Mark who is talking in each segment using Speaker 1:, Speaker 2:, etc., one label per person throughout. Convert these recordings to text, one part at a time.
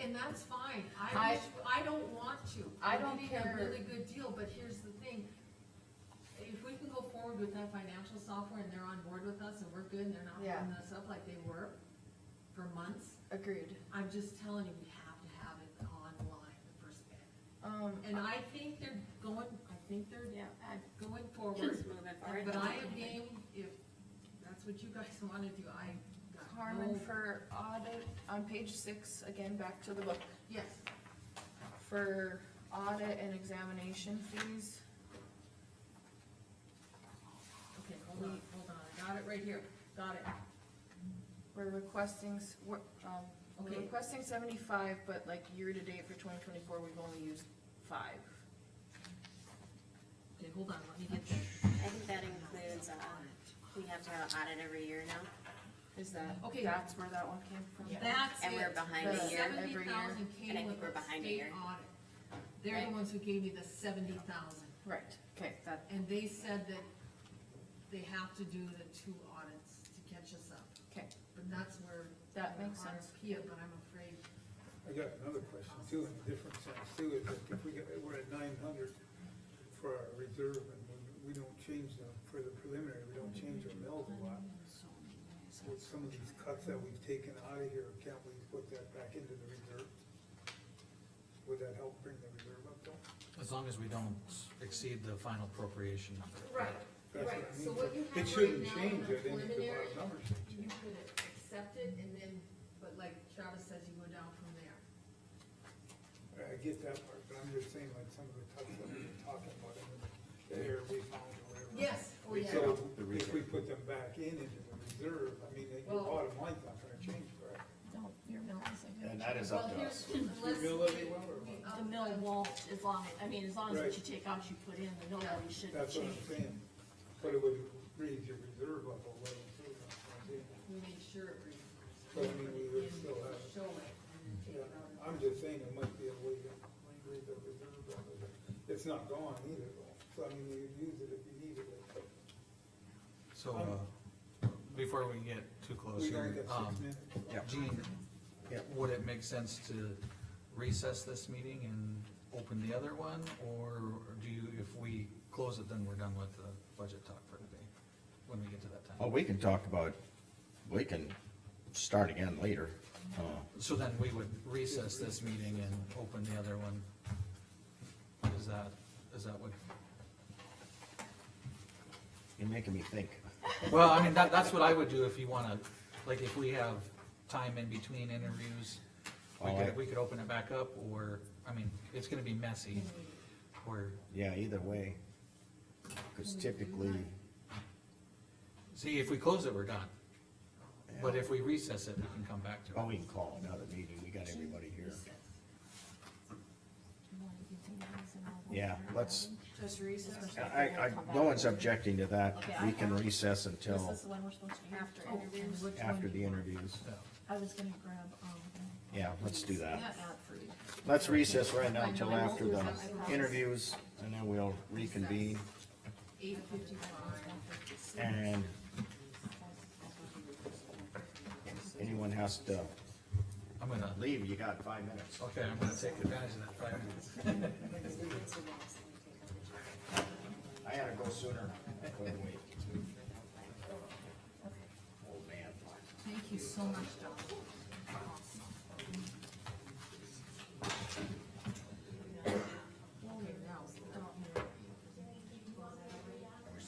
Speaker 1: and that's fine, I
Speaker 2: I-
Speaker 1: wish, I don't want to.
Speaker 2: I don't
Speaker 1: We're getting
Speaker 2: care.
Speaker 1: a really good deal, but here's the thing, if we can go forward with that financial software and they're on board with us and we're good and they're not
Speaker 2: Yeah.
Speaker 1: holding us up like they were for months,
Speaker 2: Agreed.
Speaker 1: I'm just telling you, we have to have it online, the first bit.
Speaker 2: Um,
Speaker 1: And I think they're going, I think they're
Speaker 3: Yeah, I-
Speaker 1: going
Speaker 3: it's
Speaker 1: forward,
Speaker 3: moving forward.
Speaker 1: but I am game, if that's what you guys wanna do, I. got no-
Speaker 2: Carmen, for audit, on page six, again, back to the book,
Speaker 1: Yes,
Speaker 2: for audit and examination fees,
Speaker 1: okay, hold on, hold on, I got it right here, got it.
Speaker 2: we're requesting, s- we're, um, we're
Speaker 1: Okay.
Speaker 2: requesting seventy-five, but like year-to-date for twenty twenty-four, we've only used five.
Speaker 1: Okay, hold on, let me get that.
Speaker 3: I think that includes, uh, we have to have an audit every year now,
Speaker 2: Is that,
Speaker 1: Okay.
Speaker 2: that's where that one came from?
Speaker 1: That's it.
Speaker 3: and we're behind
Speaker 2: The
Speaker 3: a year.
Speaker 2: seven-
Speaker 1: Seventy
Speaker 2: every year,
Speaker 1: thousand
Speaker 3: and I
Speaker 1: came
Speaker 3: think
Speaker 1: with
Speaker 3: we're
Speaker 1: the
Speaker 3: behind a
Speaker 1: state
Speaker 3: year.
Speaker 1: audit. They're the
Speaker 3: Right.
Speaker 1: ones who gave me the seventy thousand,
Speaker 2: Right, okay, that,
Speaker 1: and they said that they have to do the two audits to catch us up.
Speaker 2: okay,
Speaker 1: But that's where.
Speaker 2: That makes sense.
Speaker 1: Kia, but I'm afraid,
Speaker 4: I got another question too, in a different sense too, is that if we get, we're at nine hundred for our reserve and we, we don't change them for the preliminary, we don't change our mills a lot. With some of these cuts that we've taken out of here, can't we put that back into the reserve? Would that help bring the reserve up though?
Speaker 5: As long as we don't exceed the final appropriation number.
Speaker 1: right,
Speaker 4: That's
Speaker 1: right,
Speaker 4: I
Speaker 1: so
Speaker 4: mean.
Speaker 1: what you
Speaker 4: It
Speaker 1: have right
Speaker 4: shouldn't
Speaker 1: now in
Speaker 4: change,
Speaker 1: the
Speaker 4: I think, if the
Speaker 1: preliminary,
Speaker 4: bottom number should
Speaker 1: you
Speaker 4: change.
Speaker 1: could accept it, and then, but like Travis says, you go down from there.
Speaker 4: I get that part, but I'm just saying like some of the cuts that we were talking about, in the air we found or whatever.
Speaker 1: Yes, oh yeah.
Speaker 4: So if we put them back in into the reserve, I mean, the
Speaker 1: Well-
Speaker 4: bottom line's not gonna change, right?
Speaker 2: no, your mill is like.
Speaker 6: And that is
Speaker 1: Well,
Speaker 6: up to us.
Speaker 1: here's, let's, we, um,
Speaker 4: Bill Levy, well, or
Speaker 1: we
Speaker 4: what?
Speaker 1: up
Speaker 7: The mill won't, as long, I mean, as long as what you
Speaker 4: Right.
Speaker 7: take out, you put in, the mill levy shouldn't
Speaker 4: That's what
Speaker 7: change.
Speaker 4: I'm saying, but it would raise your reserve up a little too, that's what I'm saying.
Speaker 1: we made sure it was.
Speaker 4: So, I mean, we would still have-
Speaker 1: Show it. and take it
Speaker 4: Yeah,
Speaker 1: out.
Speaker 4: I'm just saying it might be a way to raise the reserve up, it's not gone either, though, so I mean, you could use it if you needed it, but
Speaker 5: So, uh, before we get too close
Speaker 4: we only
Speaker 5: here,
Speaker 4: got
Speaker 5: um,
Speaker 4: six minutes.
Speaker 5: Gene, would it make sense to recess this meeting and open the other one? Or do you, if we close it, then we're done with the budget talk for today, when we get to that
Speaker 6: Well,
Speaker 5: time?
Speaker 6: we can talk about, we can start again later. Uh,
Speaker 5: So then we would recess this meeting and open the other one? Is that, is that what?
Speaker 6: You're making me think.
Speaker 5: Well, I mean, that, that's what I would do if you wanna, like, if we have time in between interviews, we
Speaker 6: All
Speaker 5: could,
Speaker 6: right.
Speaker 5: we could open it back up, or, I mean, it's gonna be messy, or,
Speaker 6: Yeah, either way. Cause typically,
Speaker 5: see, if we close it, we're done. But if we recess it, we can come back to it.
Speaker 6: oh, we can call another meeting. We got everybody here. Yeah, let's,
Speaker 2: Just recess.
Speaker 6: I, I, no one's objecting to that. We can recess
Speaker 7: This
Speaker 6: until
Speaker 7: is the one we're supposed to be after.
Speaker 2: Oh,
Speaker 3: After interviews.
Speaker 6: after the interviews.
Speaker 5: Yeah.
Speaker 7: I was gonna grab, um.
Speaker 6: Yeah, let's do that.
Speaker 1: Yes.
Speaker 7: Godfrey.
Speaker 6: Let's recess right now until after the interviews and then we'll reconvene
Speaker 1: Eight fifty-five.
Speaker 6: and anyone has to
Speaker 5: I'm gonna,
Speaker 6: leave, you got five minutes.
Speaker 5: okay, I'm gonna take advantage of that five minutes.
Speaker 6: I had to go sooner. I couldn't wait. Old man.
Speaker 1: Thank you so much, Don. Okay, now, stop.
Speaker 6: We're still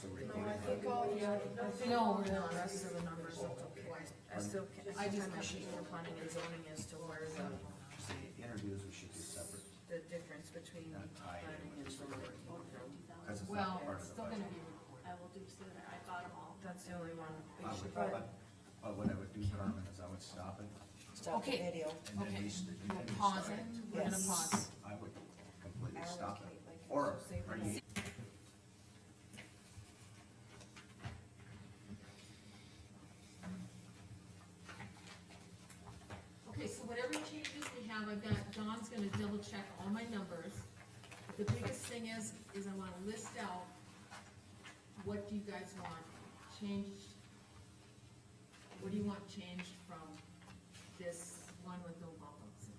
Speaker 2: No,
Speaker 6: recording.
Speaker 2: I think all the, other- I think
Speaker 1: No,
Speaker 2: all
Speaker 1: we're
Speaker 2: the
Speaker 1: not.
Speaker 2: rest of the numbers look okay. I still, I just have a sheet for planning and zoning as to where the,
Speaker 6: Interviews we should do separate,
Speaker 2: the difference between
Speaker 6: tied
Speaker 2: planning
Speaker 6: in
Speaker 2: and
Speaker 6: with
Speaker 2: zoning.
Speaker 6: cause it's
Speaker 1: Well,
Speaker 6: not part
Speaker 1: it's
Speaker 6: of the
Speaker 1: still gonna
Speaker 6: budget.
Speaker 1: be recorded.
Speaker 7: I will do sooner, I got them all.
Speaker 2: That's the only one.
Speaker 6: I
Speaker 2: we should-
Speaker 6: would, but, but what I would do, Carmen, is I would stop it
Speaker 8: Stop the
Speaker 1: Okay.
Speaker 8: video.
Speaker 6: and then
Speaker 1: Okay,
Speaker 6: we, st- you
Speaker 1: we'll
Speaker 6: can
Speaker 1: pause
Speaker 6: start
Speaker 1: it,
Speaker 6: it.
Speaker 1: we're gonna
Speaker 8: Yes.
Speaker 1: pause.
Speaker 6: I would completely
Speaker 2: Arrow
Speaker 6: stop it,
Speaker 2: key, like,
Speaker 6: or,
Speaker 2: save
Speaker 6: or
Speaker 2: it.
Speaker 6: you
Speaker 1: Okay, so whatever changes we have, I've got, John's gonna double check all my numbers. The biggest thing is, is I wanna list out, what do you guys want changed? What do you want changed